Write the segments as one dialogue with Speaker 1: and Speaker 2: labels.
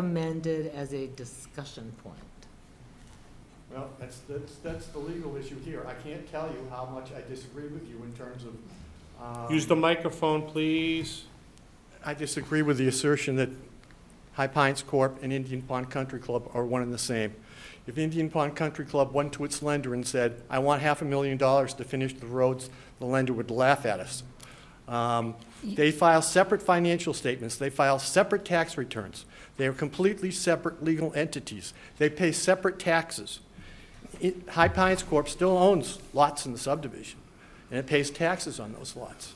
Speaker 1: recommended as a discussion point.
Speaker 2: Well, that's, that's, that's the legal issue here. I can't tell you how much I disagree with you in terms of. um,
Speaker 3: Use the microphone, please.
Speaker 2: I disagree with the assertion that High Pines Corp. and Indian Pond Country Club are one and the same. If Indian Pond Country Club went to its lender and said, I want half a million dollars to finish the roads, the lender would laugh at us. Um, They file separate financial statements, they file separate tax returns. They are completely separate legal entities. They pay separate taxes. It- High Pines Corp. still owns lots in the subdivision, and it pays taxes on those lots.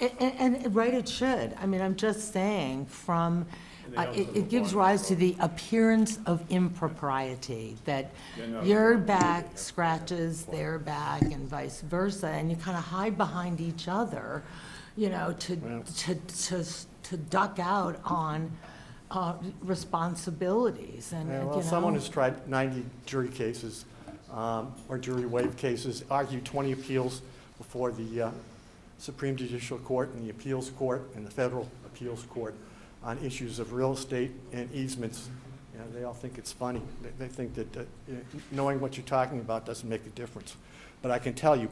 Speaker 1: And, and, right, it should. I mean, I'm just saying, from,
Speaker 4: And they
Speaker 1: uh,
Speaker 4: don't
Speaker 1: it, it gives
Speaker 4: perform.
Speaker 1: rise to the appearance of impropriety, that
Speaker 4: They're not-
Speaker 1: your back scratches their back and vice versa, and you kind of hide behind each other, you know, to, to, to, to duck out on, uh, responsibilities and,
Speaker 2: Yeah,
Speaker 1: you
Speaker 2: well, someone
Speaker 1: know.
Speaker 2: who's tried 90 jury cases, um, or jury waive cases, argued 20 appeals before the uh, Supreme Judicial Court and the Appeals Court and the Federal Appeals Court on issues of real estate and easements. You know, they all think it's funny. They- They think that uh, you know, knowing what you're talking about doesn't make a difference. But I can tell you,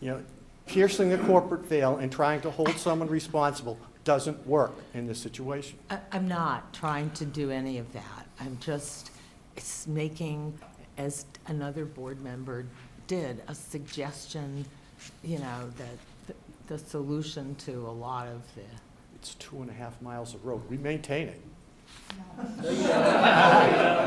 Speaker 2: you know, piercing the corporate veil and trying to hold someone responsible doesn't work in this situation.
Speaker 1: I, I'm not trying to do any of that. I'm just, it's making, as another board member did, a suggestion, you know, that th- the solution to a lot of the,
Speaker 2: It's two and a half miles of road. We maintain it.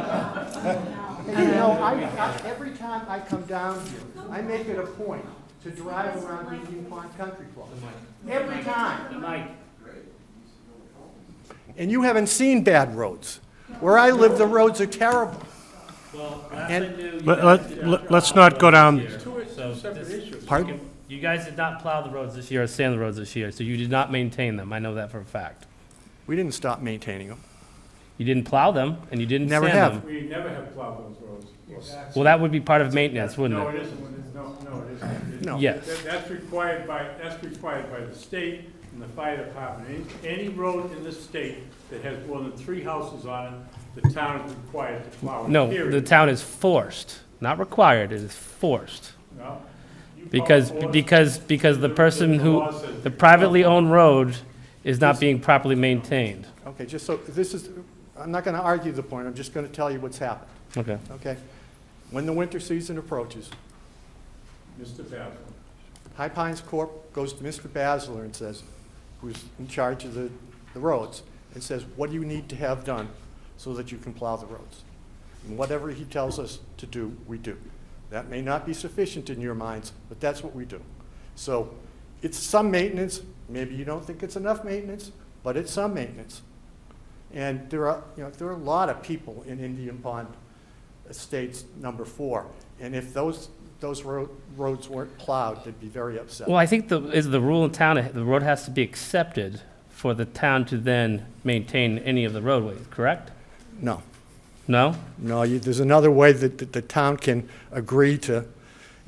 Speaker 2: And you know, I, I- every time I come down here, I make it a point to drive around Indian Pond Country Club. Every time. And you haven't seen bad roads. Where I live, the roads are terrible.
Speaker 3: Let- let- let- Let's not go down,
Speaker 5: So this-
Speaker 2: Pardon?
Speaker 5: You guys did not plow the roads this year or sand the roads this year, so you did not maintain them. I know that for a fact.
Speaker 2: We didn't stop maintaining them.
Speaker 5: You didn't plow them and you didn't
Speaker 2: Never
Speaker 5: sand
Speaker 2: have.
Speaker 5: them.
Speaker 4: We never have plowed those roads.
Speaker 5: Well, that would be part of maintenance, wouldn't
Speaker 4: No,
Speaker 5: it?
Speaker 4: it isn't. No, no, it isn't.
Speaker 2: No.
Speaker 5: Yes.
Speaker 4: That- That's required by, that's required by the state and the fire department. Any, any road in this state that has more than three houses on it, the town is required to plow it.
Speaker 5: No, the
Speaker 4: period.
Speaker 5: town is forced, not required, it is forced.
Speaker 4: No. You call
Speaker 5: Because,
Speaker 4: for it.
Speaker 5: because, because the person who,
Speaker 4: law says-
Speaker 5: the privately owned road is not being properly maintained.
Speaker 2: Okay, just so, this is, I'm not gonna argue the point, I'm just gonna tell you what's happened,
Speaker 5: Okay.
Speaker 2: okay? When the winter season approaches,
Speaker 4: Mr. Basil,
Speaker 2: High Pines Corp. goes to Mr. Basler and says, who's in charge of the, the roads, and says, what do you need to have done so that you can plow the roads? And whatever he tells us to do, we do. That may not be sufficient in your minds, but that's what we do. So it's some maintenance, maybe you don't think it's enough maintenance, but it's some maintenance. And there are, you know, there are a lot of people in Indian Pond Estates number four. And if those, those road, roads weren't plowed, they'd be very upset.
Speaker 5: Well, I think the, is the rule in town, the road has to be accepted for the town to then maintain any of the roadways, correct?
Speaker 2: No,
Speaker 5: No?
Speaker 2: no, you, there's another way that, that the town can agree to,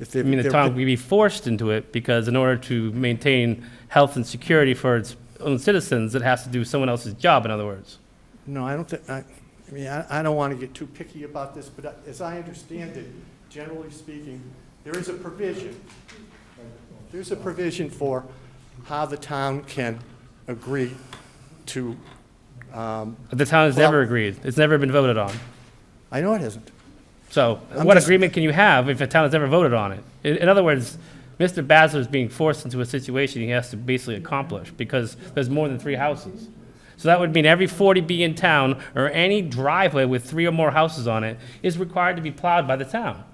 Speaker 2: if they.
Speaker 5: I mean, the
Speaker 2: they're-
Speaker 5: town would be forced into it because in order to maintain health and security for its own citizens, it has to do someone else's job, in other words.
Speaker 2: No, I don't think, I, I mean, I, I don't want to get too picky about this, but as I understand it, generally speaking, there is a provision. There's a provision for how the town can agree to, um,
Speaker 5: The town has
Speaker 2: Well-
Speaker 5: never agreed. It's never been voted on.
Speaker 2: I know it isn't.
Speaker 5: So
Speaker 2: I'm
Speaker 5: what
Speaker 2: just-
Speaker 5: agreement can you have if a town has never voted on it? In, in other words, Mr. Basler is being forced into a situation he has to basically accomplish because there's more than three houses. So that would mean every 40B in town or any driveway with three or more houses on it is required to be plowed by the town.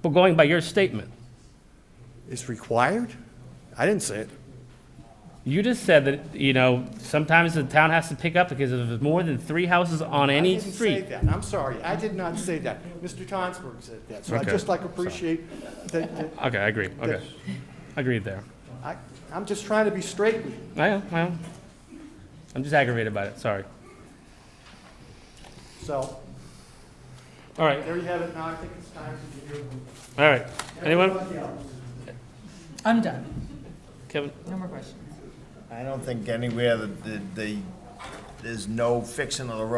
Speaker 5: But going by your statement,
Speaker 2: It's required? I didn't say it.
Speaker 5: you just said that, you know, sometimes the town has to pick up because if there's more than three houses on any
Speaker 2: I
Speaker 5: street.
Speaker 2: didn't say that, I'm sorry, I did not say that. Mr. Tonsberg said that, so I
Speaker 5: Okay.
Speaker 2: just like appreciate that, that-
Speaker 5: Okay, I agree, okay. Agreed there.
Speaker 2: I, I'm just trying to be straight with you.
Speaker 5: I am, I am. I'm just aggravated about it, sorry.
Speaker 2: So,
Speaker 5: All right,
Speaker 2: there you have it, now I think it's time to give you.
Speaker 5: All right, anyone?
Speaker 2: Everybody else.
Speaker 1: I'm done.
Speaker 5: Kevin?
Speaker 1: No more questions.
Speaker 6: I don't think anywhere that, that they, there's no fixing of the road